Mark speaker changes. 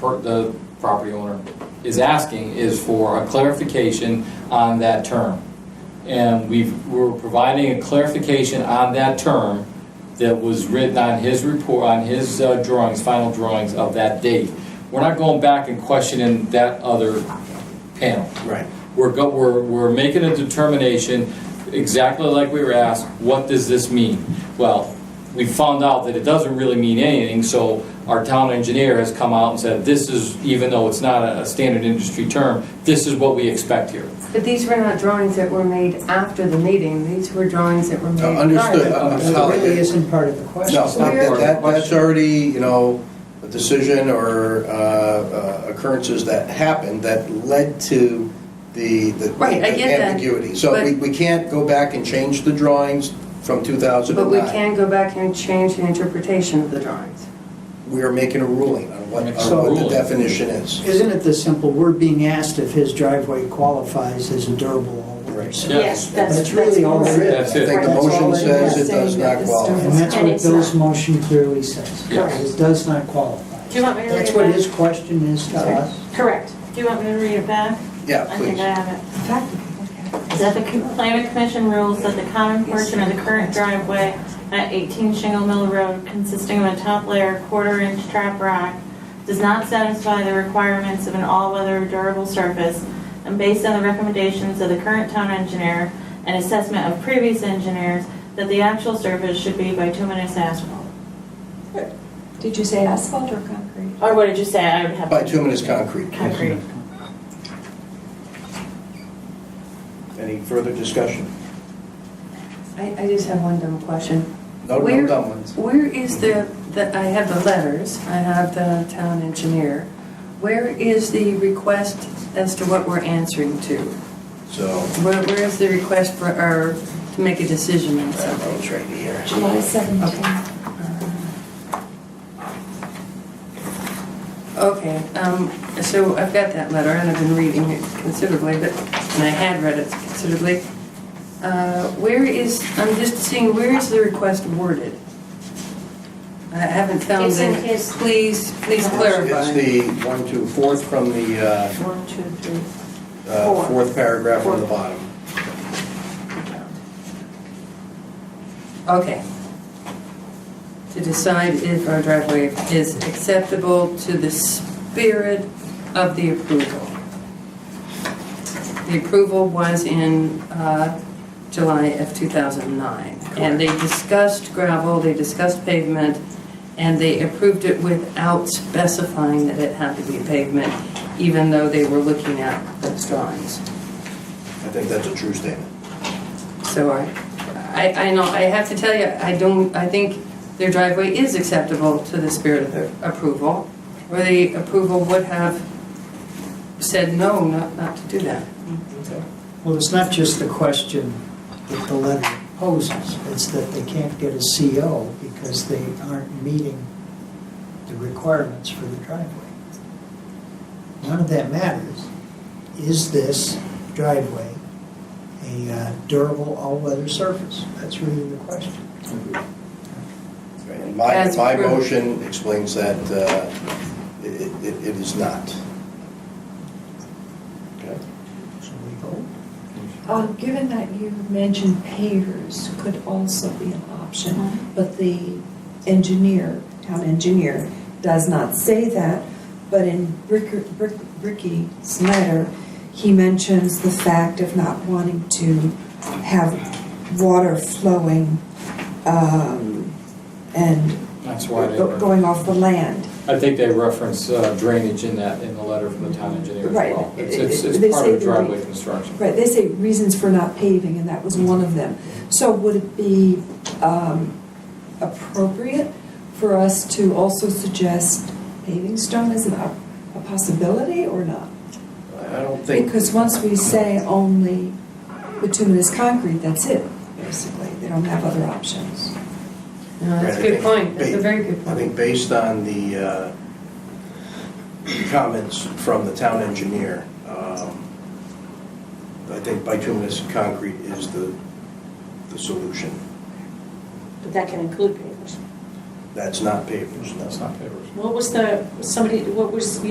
Speaker 1: per- the property owner is asking is for a clarification on that term. And we've, we're providing a clarification on that term that was written on his report, on his uh, drawings, final drawings of that date. We're not going back and questioning that other panel.
Speaker 2: Right.
Speaker 1: We're, go- we're, we're making a determination, exactly like we were asked, what does this mean? Well, we found out that it doesn't really mean anything, so our town engineer has come out and said, this is, even though it's not a a standard industry term, this is what we expect here.
Speaker 3: But these were not drawings that were made after the meeting, these were drawings that were made.
Speaker 2: Uh, understood.
Speaker 3: prior.
Speaker 2: Uh, uh,
Speaker 4: That really isn't part of the
Speaker 2: No,
Speaker 4: question.
Speaker 2: it's not- that, that- that's already, you know, a decision or uh, uh, occurrences that happened that led to the the
Speaker 3: Right, I get that,
Speaker 2: ambiguity. So we, we can't go back and change the drawings from
Speaker 3: But we
Speaker 2: 2009.
Speaker 3: can go back and change the interpretation of the drawings.
Speaker 2: We are making a ruling on what, on
Speaker 1: Make some
Speaker 2: what the
Speaker 1: ruling.
Speaker 2: definition is.
Speaker 4: Isn't it this simple? We're being asked if his driveway qualifies as a durable
Speaker 2: Right.
Speaker 4: overlay.
Speaker 1: Yes.
Speaker 4: That's really all it
Speaker 2: I
Speaker 4: is.
Speaker 1: That's it.
Speaker 2: think the
Speaker 4: That's all
Speaker 2: motion
Speaker 4: it
Speaker 2: says
Speaker 4: is.
Speaker 2: it does not qualify.
Speaker 4: And that's
Speaker 5: And
Speaker 4: what
Speaker 5: it's
Speaker 4: Bill's
Speaker 5: not.
Speaker 4: motion clearly says.
Speaker 1: Yes.
Speaker 4: It does not qualify.
Speaker 5: Do you want me to read it
Speaker 4: That's what
Speaker 5: back?
Speaker 4: his question is to us.
Speaker 5: Correct. Do you want me to read it back?
Speaker 2: Yeah,
Speaker 5: I think I
Speaker 2: Uh, please.
Speaker 5: have it. That the com- planning commission rules that the common portion of the current driveway at 18 Shingle Mill Road consisting of a top layer quarter-inch trap rock does not satisfy the requirements of an all-weather durable surface and based on the recommendations of the current town engineer and assessment of previous engineers, that the actual surface should be bituminous asphalt.
Speaker 6: Did you say asphalt or concrete?
Speaker 5: Or what did you say? I would have.
Speaker 2: Bituminous concrete.
Speaker 5: Concrete.
Speaker 2: Any further discussion?
Speaker 3: I, I just have one dumb question.
Speaker 2: No, no
Speaker 3: Where-
Speaker 2: dumb ones.
Speaker 3: Where is the, the, I have the letters, I have the town engineer. Where is the request as to what we're answering to?
Speaker 2: So,
Speaker 3: Where, where is the request for, or to make a decision on
Speaker 2: that
Speaker 3: something?
Speaker 2: one's right here.
Speaker 6: July 17.
Speaker 3: Okay, um, so I've got that letter and I've been reading it considerably, but, and I had read it considerably. Uh, where is, I'm just seeing, where is the request worded? I haven't found
Speaker 5: It's in
Speaker 3: it.
Speaker 5: his-
Speaker 3: Please, please
Speaker 2: It's
Speaker 3: clarify.
Speaker 2: the one, two, fourth from the uh,
Speaker 5: One, two, three.
Speaker 2: uh,
Speaker 5: Four.
Speaker 2: fourth paragraph from the bottom.
Speaker 3: Okay. To decide if our driveway is acceptable to the spirit of the approval. The approval was in uh, July of 2009. And they discussed gravel, they discussed pavement, and they approved it without specifying that it had to be pavement, even though they were looking at those drawings.
Speaker 2: I think that's a true statement.
Speaker 3: So I, I, I know, I have to tell you, I don't, I think their driveway is acceptable to the spirit of the approval, where the approval would have said no, not, not to do that. Uh,
Speaker 4: Well, it's not just the question that the letter poses, it's that they can't get a CO because they aren't meeting the requirements for the driveway. None of that matters. Is this driveway a uh, durable all-weather surface? That's really the question.
Speaker 2: And My,
Speaker 3: That's
Speaker 2: my
Speaker 3: true.
Speaker 2: motion explains that uh, it, it it is not. Okay.
Speaker 4: So we vote.
Speaker 6: Um, Given that you mentioned pavers could also be an option, but the engineer, town engineer, does not say that, but in Ricker- Rick- Ricky's letter, he mentions the fact of not wanting to have water flowing um, and
Speaker 1: That's why they,
Speaker 6: go- going off the land.
Speaker 1: I think they reference uh, drainage in that, in the letter from the town engineer as
Speaker 6: Right.
Speaker 1: well. It's, it's- it's
Speaker 6: They
Speaker 1: part
Speaker 6: say
Speaker 1: of
Speaker 6: the-
Speaker 1: the driveway construction.
Speaker 6: Right, they say reasons for not paving, and that was one of them. So would it be um, appropriate for us to also suggest paving stone as an op- a possibility or not?
Speaker 2: I don't think,
Speaker 6: Because once we say only bituminous concrete, that's it, basically. They don't have other options.
Speaker 3: No, that's a good point, that's a very good
Speaker 2: I
Speaker 3: point.
Speaker 2: think based on the uh, comments from the town engineer, um, I think bituminous concrete is the, the solution.
Speaker 7: But that can include papers.
Speaker 2: That's not pavers, no.
Speaker 1: That's not papers.
Speaker 7: What was the, somebody, what was